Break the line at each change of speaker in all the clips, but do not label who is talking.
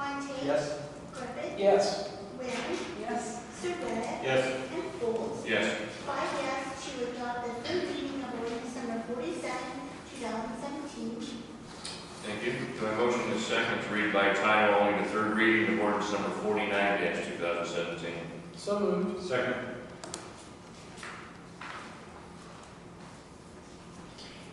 Lee.
Yes.
Griffith.
Yes.
Wynn.
Yes.
Surratt.
Yes.
And Folds.
Yes.
Five yes to adopt the third reading of ordinance number forty-seven, two thousand seventeen.
Thank you. Do I have a motion and a second to read by title only the third reading of ordinance number forty-nine two thousand seventeen?
So moved.
Second.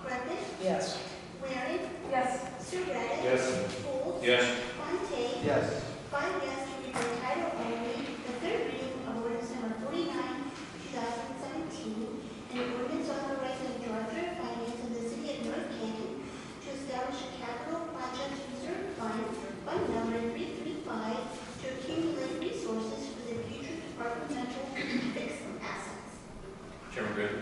Griffith.
Yes.
Waring.
Yes.
Surratt.
Yes.
Folds.
Yes.
Fontaine.
Yes.
Five yes to read by title only the third reading of ordinance number forty-nine, two thousand seventeen, and an ordinance authorizing the director of finance of the city of North Canton to establish a capital project reserve fund, fund number three three five, to accumulate resources for the future departmental fixed assets.
Chairman Griffin.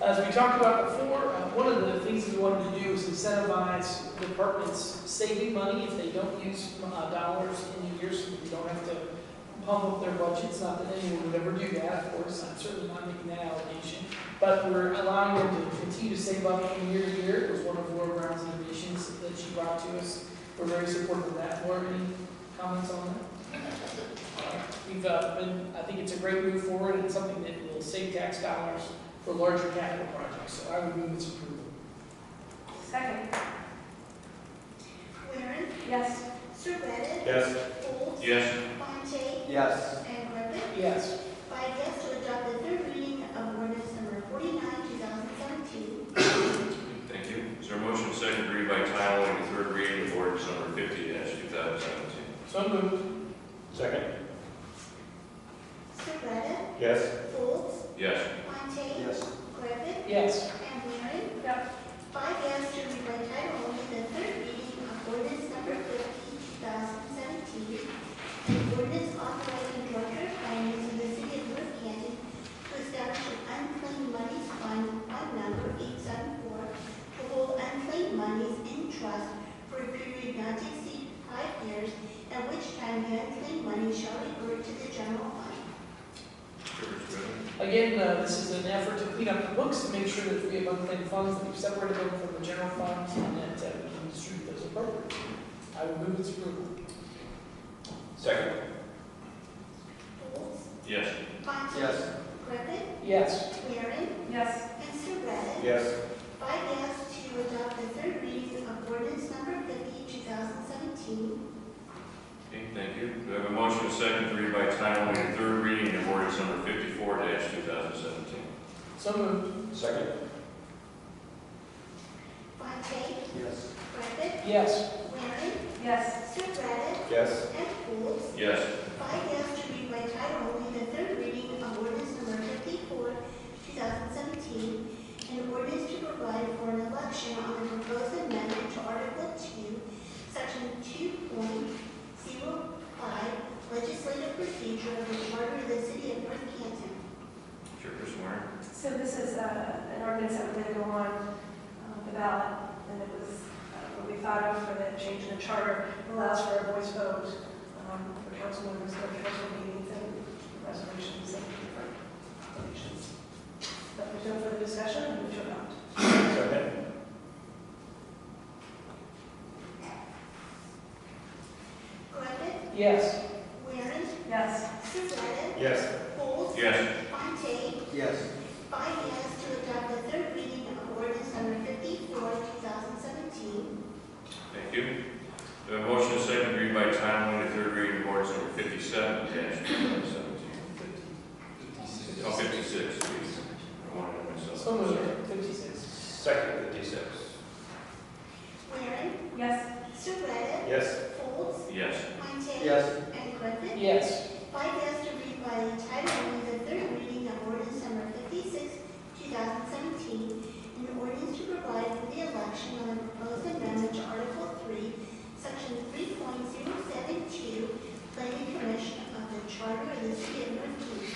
As we talked about before, uh, one of the things we wanted to do is incentivize departments saving money if they don't use uh, dollars in the year, so they don't have to pump up their budgets, not that anyone would ever do that, of course, I'm certainly not making that allegation, but we're allowing them to continue to save up from year to year, it was one of Laura Brown's innovations that she brought to us, we're very supportive of that, Laura, any comments on that? We've uh, been, I think it's a great move forward, and something that will save tax dollars for larger capital projects, so I would move its approval.
Second.
Waring,
Yes.
Surratt,
Yes.
Folds,
Yes.
Fontaine,
Yes.
and Griffin.
Yes.
Five yes to adopt the third reading of ordinance number forty-nine, two thousand seventeen.
Thank you. Is there a motion and second to read by title only the third reading of ordinance number fifty two thousand seventeen?
So moved.
Second?
Surratt,
Yes.
Folds,
Yes.
Fontaine,
Yes.
Griffith,
Yes.
and Waring.
Yes.
Five yes to read by title only the third reading of ordinance number fifty, two thousand seventeen. An ordinance authorizing director of finance of the city of North Canton to establish an unclaimed monies fund, fund number eight seven four, to hold unclaimed monies in trust for a period not to exceed five years, at which time the unclaimed money shall revert to the general fund.
Chairman Griffin.
Again, uh, this is an effort to clean up the books and make sure that we have unclaimed funds, that we've separated them from the general funds, and that uh, we can distribute those appropriately. I would move its approval.
Second?
Folds,
Yes.
Fontaine. Griffith,
Yes.
Waring,
Yes.
and Surratt.
Yes.
Five yes to adopt the third reading of ordinance number 50, 2017.
Okay, thank you. Do I have a motion and second to read by title only the third reading of ordinance number fifty-four two thousand seventeen?
So moved.
Second?
Fontaine,
Yes.
Griffith,
Yes.
Waring,
Yes.
Surratt,
Yes.
and Folds.
Yes.
Five yes to read by title only the third reading of ordinance number 54, 2017, an ordinance to provide for an election on the proposed amendment to Article 2, Section 2.05, legislative procedure of the Charter of the City of North Canton.
Chairperson Warren.
So this is uh, an ordinance that we're going to go on uh, the ballot, and it was uh, what we thought of for the change in the charter, It allows for a voice vote um, for council members, for council meetings, and resolutions, and different elections. But there's no further discussion, and we should not.
Second?
Griffith,
Yes.
Waring,
Yes.
Surratt,
Yes.
Folds,
Yes.
Fontaine,
Yes.
five yes to adopt the third reading of ordinance number fifty-four, two thousand seventeen.
Thank you. Do I have a motion and second to read by title only the third reading of ordinance number fifty-seven two thousand seventeen? Oh, fifty-six, please. I wanted it myself.
So moved. Fifty-six.
Second fifty-six.
Waring,
Yes.
Surratt,
Yes.
Folds,
Yes.
Fontaine.
Yes.
And Griffith,
Yes.
five yes to read by title only the third reading of ordinance number fifty-six, two thousand seventeen, an ordinance to provide for the election on the proposed amendment to Article Three, Section three point zero seven two, planning commission of the charter of the city of North Canton.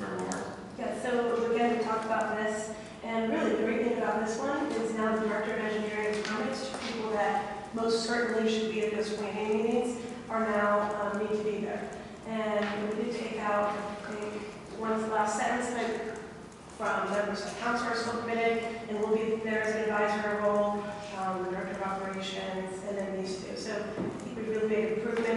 Member Warren.
Yeah, so again, we talked about this, and really the great thing about this one is now the director of engineering comments to people that most certainly should be at those planning meetings are now, um, need to be there. And we did take out, I think, one of the last sentence like, from members of council are still committed, and will be there as an advisory role, um, the director of operations, and then these two. So I think we really really big improvement